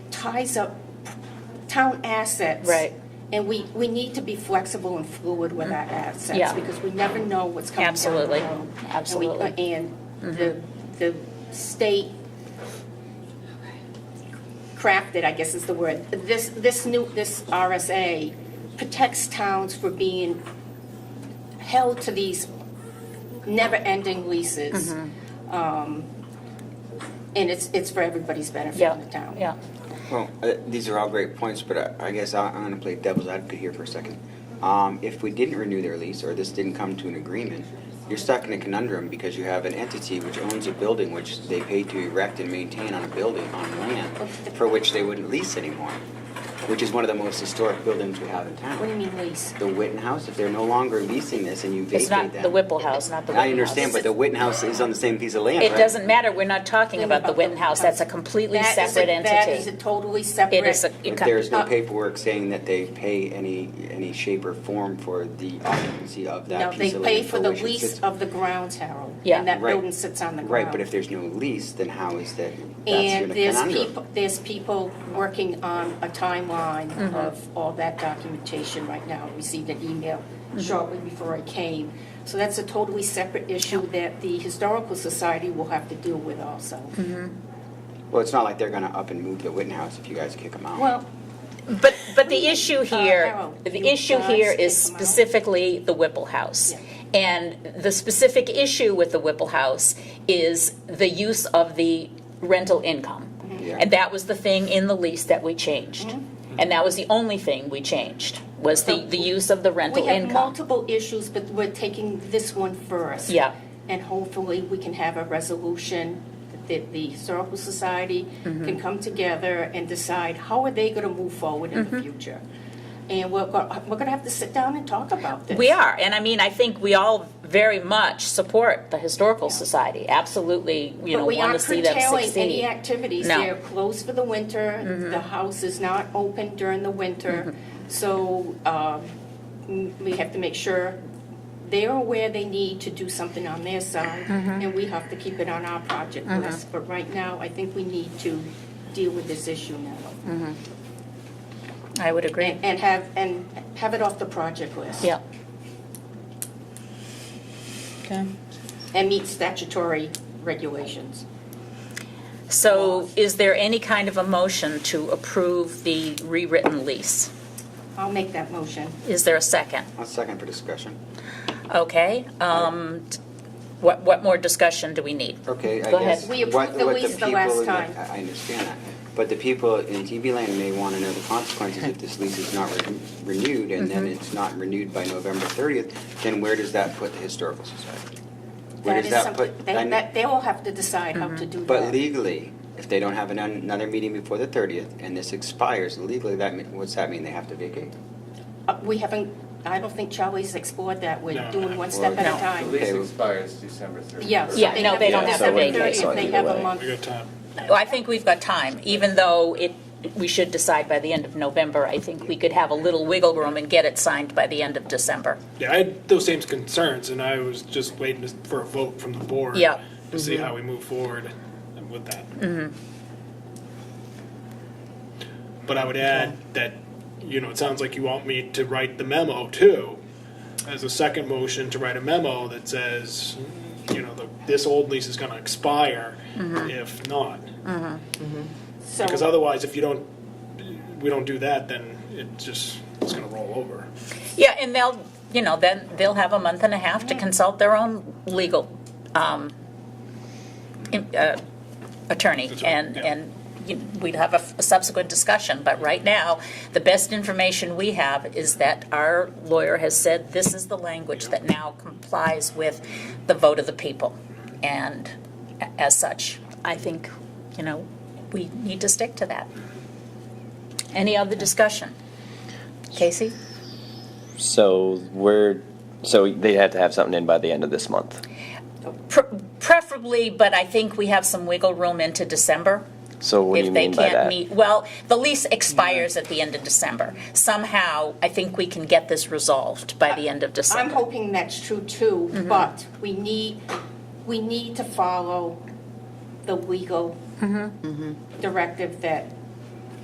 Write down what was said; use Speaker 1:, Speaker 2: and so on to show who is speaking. Speaker 1: ties up town assets.
Speaker 2: Right.
Speaker 1: And we, we need to be flexible and fluid with our assets.
Speaker 2: Yeah.
Speaker 1: Because we never know what's coming down the
Speaker 2: Absolutely.
Speaker 1: road. And we- uh,
Speaker 2: Absolutely. Mm-hmm.
Speaker 1: And the, the state crafted, I guess is the word, this, this new, this RSA protects towns for being held to these never-ending leases.
Speaker 2: Mm-hmm.
Speaker 1: Um, And it's, it's for everybody's benefit
Speaker 2: Yeah,
Speaker 1: in the town.
Speaker 2: yeah.
Speaker 3: Well, uh, these are all great points, but I- I guess I- I'm going to play devil's advocate here for a second. Um, If we didn't renew their lease, or this didn't come to an agreement, you're stuck in a conundrum because you have an entity which owns a building which they paid to erect and maintain on a building, on land, for which they wouldn't lease anymore, which is one of the most historic buildings we have in
Speaker 1: What do you mean
Speaker 3: town.
Speaker 1: lease?
Speaker 3: The Witten House, if they're no longer leasing this and you
Speaker 2: It's
Speaker 3: vacate
Speaker 2: not
Speaker 3: that.
Speaker 2: the Whipple House, not the Witten House.
Speaker 3: I understand, but the Witten House is on the same piece of land,
Speaker 2: It
Speaker 3: right?
Speaker 2: doesn't matter, we're not talking about the Witten House, that's a completely
Speaker 1: That is a-
Speaker 2: separate
Speaker 1: That is a
Speaker 2: entity.
Speaker 1: totally separate.
Speaker 2: It is a. it
Speaker 3: But
Speaker 2: co-
Speaker 3: There's no
Speaker 1: Uh,
Speaker 3: paperwork saying that they pay any, any shape or form for the occupancy of
Speaker 1: No,
Speaker 3: that
Speaker 1: they
Speaker 3: piece of
Speaker 1: pay
Speaker 3: land
Speaker 1: for
Speaker 3: for
Speaker 1: the
Speaker 3: which it
Speaker 1: lease
Speaker 3: sits.
Speaker 1: of the grounds, Harold.
Speaker 2: Yeah.
Speaker 1: And that
Speaker 3: Right.
Speaker 1: building sits on the ground.
Speaker 3: Right, but if there's no lease, then how is that, that's your
Speaker 1: And there's
Speaker 3: conundrum.
Speaker 1: people, there's people working on a timeline
Speaker 2: Mm-hmm.
Speaker 1: of all that documentation right now. I Received an email
Speaker 2: Mm-hmm.
Speaker 1: shortly before I came. So that's a totally separate issue that the Historical Society will have to deal with also.
Speaker 2: Mm-hmm.
Speaker 3: Well, it's not like they're gonna up and move the Witten House if you guys kick them out.
Speaker 1: Well,
Speaker 2: But, but the issue here,
Speaker 1: Harold, you
Speaker 2: the issue
Speaker 1: guys
Speaker 2: here
Speaker 1: take
Speaker 2: is
Speaker 1: them out.
Speaker 2: specifically the Whipple House.
Speaker 1: Yeah.
Speaker 2: And the specific issue with the Whipple House is the use of the rental income.
Speaker 1: Mm-hmm.
Speaker 3: Yeah.
Speaker 2: And that was the thing in the lease that we changed. And that was the only thing we changed, was the,
Speaker 1: So
Speaker 2: the use of the rental
Speaker 1: we have
Speaker 2: income.
Speaker 1: multiple issues, but we're taking this one first.
Speaker 2: Yeah.
Speaker 1: And hopefully, we can have a resolution that the Historical Society can come together and decide how are they going to move forward in the future. And we're going, we're going to have to sit down and talk about this.
Speaker 2: We are, and I mean, I think we all very much support the Historical Society, absolutely, you know,
Speaker 1: But we
Speaker 2: want to
Speaker 1: aren't
Speaker 2: see them
Speaker 1: curtailing any
Speaker 2: succeed.
Speaker 1: activities.
Speaker 2: No. Mm-hmm.
Speaker 1: They're closed for the winter. The house is not open during the winter. So um, m- we have to make sure they're aware they need to do something on their side,
Speaker 2: Mm-hmm.
Speaker 1: and we have to keep it on our project list. But right now, I think we need to deal with this issue now
Speaker 2: I would agree.
Speaker 1: and and have, and have it off the project list.
Speaker 2: Yeah.
Speaker 1: And meet statutory regulations.
Speaker 2: So is there any kind of a motion to approve the rewritten lease?
Speaker 1: I'll make that motion.
Speaker 2: Is there a second?
Speaker 3: I'll second for discussion.
Speaker 2: Okay, um, t- what, what more discussion do we need?
Speaker 3: Okay, I
Speaker 2: Go ahead.
Speaker 3: guess.
Speaker 1: We approved
Speaker 3: what-
Speaker 1: the
Speaker 3: what
Speaker 1: lease the
Speaker 3: people
Speaker 1: last
Speaker 3: in
Speaker 1: time.
Speaker 3: I I understand that, but the people in TV land may want to know the consequences if this lease is not re- renewed, and then
Speaker 1: Mm-hmm.
Speaker 3: it's not renewed by November 30th, then where does that put the Historical Society?
Speaker 1: That
Speaker 3: Where does
Speaker 1: is
Speaker 3: that
Speaker 1: something,
Speaker 3: put?
Speaker 1: they,
Speaker 3: I kn-
Speaker 1: that- they will have to decide
Speaker 2: Mm-hmm.
Speaker 1: how to do that.
Speaker 3: But legally, if they don't have an- another meeting before the 30th, and this expires, legally, that, mea- what's that mean? They have to vacate?
Speaker 1: Uh, We haven't, I don't think Charlie's explored that, we're
Speaker 4: No.
Speaker 1: doing one step at
Speaker 2: No.
Speaker 1: a
Speaker 5: The
Speaker 1: time.
Speaker 5: lease
Speaker 3: Okay.
Speaker 5: expires December 31st.
Speaker 1: Yeah, so
Speaker 2: Yeah,
Speaker 1: they
Speaker 2: no,
Speaker 1: have
Speaker 2: they
Speaker 1: to
Speaker 2: don't
Speaker 1: do
Speaker 2: have to
Speaker 1: something
Speaker 2: vacate,
Speaker 1: dirty if
Speaker 2: so
Speaker 1: They
Speaker 6: either
Speaker 1: have a
Speaker 6: way.
Speaker 1: month.
Speaker 4: We got time.
Speaker 2: Well, I think we've got time, even though it, we should decide by the end of November. I think we could have a little wiggle room and get it signed by the end of December.
Speaker 4: Yeah, I had those same concerns, and I was just waiting to- for a vote from the board.
Speaker 2: Yeah.
Speaker 4: To see how we move forward with that. But I would add that, you know, it sounds like you want me to write the memo too, as a second motion to write a memo that says, you know, the- this old lease is gonna expire if not. Because
Speaker 1: So,
Speaker 4: otherwise, if you don't, we don't do that, then it just, it's gonna roll over.
Speaker 2: Yeah, and they'll, you know, then they'll have a month and a half to consult their own legal um, in- uh, attorney,
Speaker 4: That's right,
Speaker 2: and,
Speaker 4: yeah.
Speaker 2: and you- we'd have a f- a subsequent discussion. But right now, the best information we have is that our lawyer has said this is the language that now complies with the vote of the people. And a- as such, I think, you know, we need to stick to that. Any other discussion? Casey?
Speaker 6: So we're, so they have to have something in by the end of this month.
Speaker 2: Pre- Preferably, but I think we have some wiggle room into December.
Speaker 6: So what do you
Speaker 2: if they
Speaker 6: mean by
Speaker 2: can't
Speaker 6: that?
Speaker 2: meet. Well, the lease expires at the end of December. Somehow, I think we can get this resolved by the end of
Speaker 1: I'm
Speaker 2: December.
Speaker 1: hoping that's true too, but we need, Mm-hmm. we need to follow the legal directive that